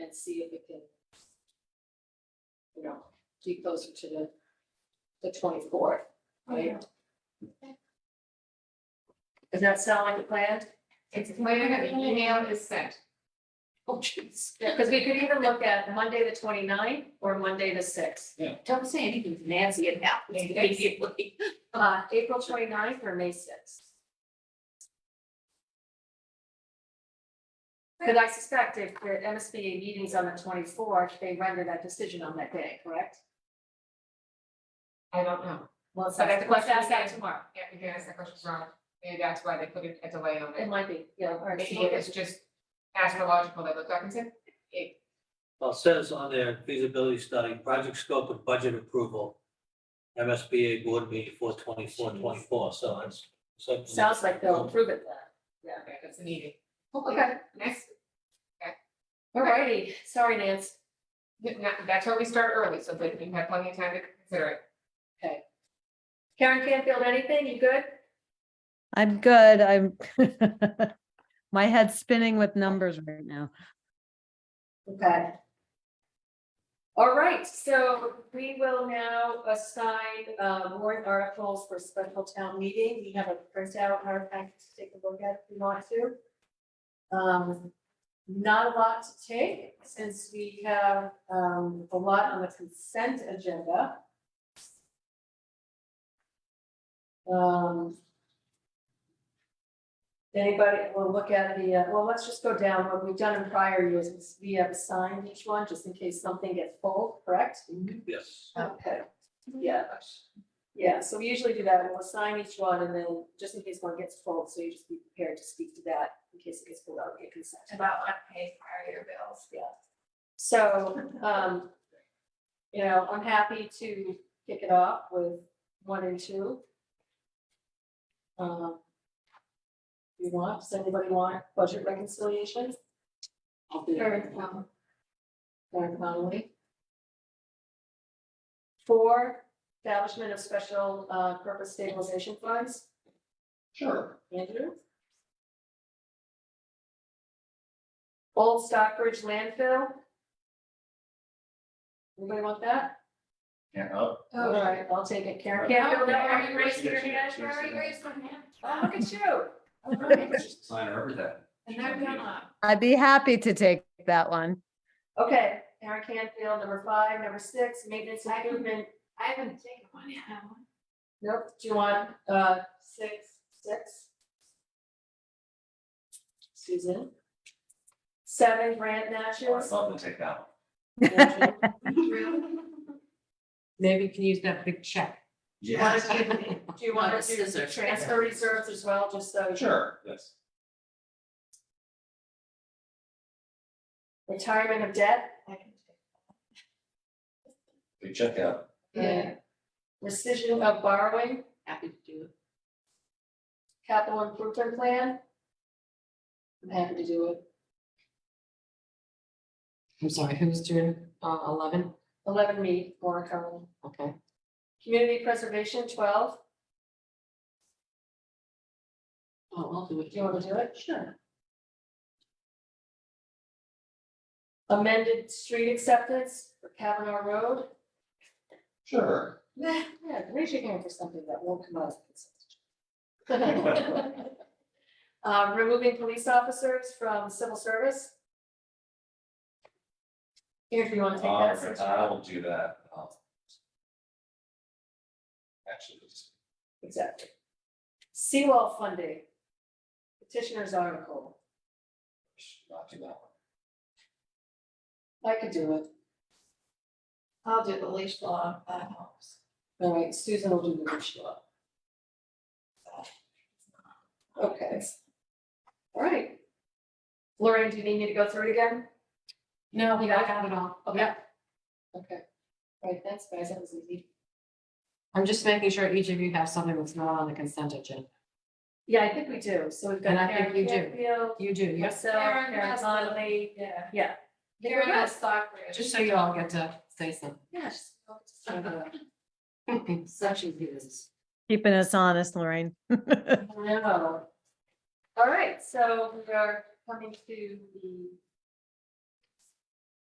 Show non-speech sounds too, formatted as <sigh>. and see if it can. You know, be closer to the, the twenty-fourth, right? Does that sound like a plan? It's later, the email is sent. Oh, <laughs> jeez. Because we could even look at Monday, the 29th or Monday, the sixth. Don't say anything to Nancy and now. immediately. Uh, April 29th or May sixth. Because I suspect if the MSBA meeting's on the twenty-fourth, they render that decision on that day, correct? I don't know. Well, it's So that's like, the let's question ask that again. tomorrow. Yeah, you can ask that question wrong. Maybe that's why they put a a delay on It it. might be, yeah, or it's- Maybe it's just astrological, they looked up and said, it, Well, it says on there feasibility study, project scope and budget approval. MSBA board meeting four twenty-four, twenty-four, so it's. so- sounds like they'll approve it then. okay, that's a meeting. Okay, Next, alrighty, sorry, Nance. not- that's why we start early, so that you have plenty of time to consider it. Karen Canfield, anything, you good? I'm good. I'm <laughs> my head's spinning with numbers right now. Okay. All right, so we will now assign uh, warrant articles for special town meeting. We have a printout, our packet to take a look at if you want to. Um, Not a lot to take since we have um, a lot on the consent agenda. Um, Anybody, we'll look at the, uh, well, let's just go down, what we've done in prior years, is we have assigned each one, just in case something gets full, correct? Yes, Okay, yeah, yeah, so we usually do that, we'll assign each one, and then, just in case one gets full, so you just be prepared to speak to that, in case it gets full, out, get consent. About unpaid prior year bills. So, um, you know, I'm happy to kick it off with one and two. Um, You want, does anybody want budget reconciliation? I'll do it. Karen Connolly. Four, establishment of special, uh, purpose stabilization funds, Sure. Andrew. Old Stockbridge landfill. Anybody want that? Yeah, <laughs> oh, All right, I'll take it, Karen. Yeah, Campbell, no, are you you ready? raised- Oh, look at you. All right. just sign her over that. And they're gonna, I'd be happy to take that one. Okay, Karen Canfield, number five, number six, maintenance improvement. I haven't taken one yet. have I? Nope, do you want, uh, six, six? Susan? Seven, grant I'd matches. love to take that one. Andrew? Maybe you can use that big check. Do you Yeah, want to do, do you want to do the transfer reserves as well, just so? <laughs> sure, yes. Retirement of debt? We check out. Yeah. Rescission of borrowing? Happy to do it. capital improvement plan. I'm happy to do it. I'm sorry, who's doing uh eleven? Eleven me, more coming. Okay. Community preservation, twelve. Oh, I'll do it. Do you want to do it? Sure. Amended street acceptance for Kavanaugh Road. Sure. Yeah, raise your hand for something that won't come out. of consent agenda. Uh, removing police officers from civil service. Here, if you want to take that. since Uh, you're- I will do that. um, Actually, it's- Exactly. Seawall funding. Petitioner's article. should not do that one. I could do it. I'll do the leash law, if that helps. All right, Susan will do the wish law. Okay. All right. Lorraine, do you need me to go through it again? No, we got it all. Okay. Okay. All right, thanks, guys. That was easy. I'm just making sure each of you have something that's not on the consent agenda. Yeah, I think we do. So we've got And I think Karen you do. Canfield, You do, yes. myself, Karen Karen has the- Conley. Yeah. Yeah. I think we're Karen good. has Stockbridge. Just so you all get to say something. Yeah, just- <laughs> Such a business. Keeping us honest, Lorraine. No. All right, so we are coming to the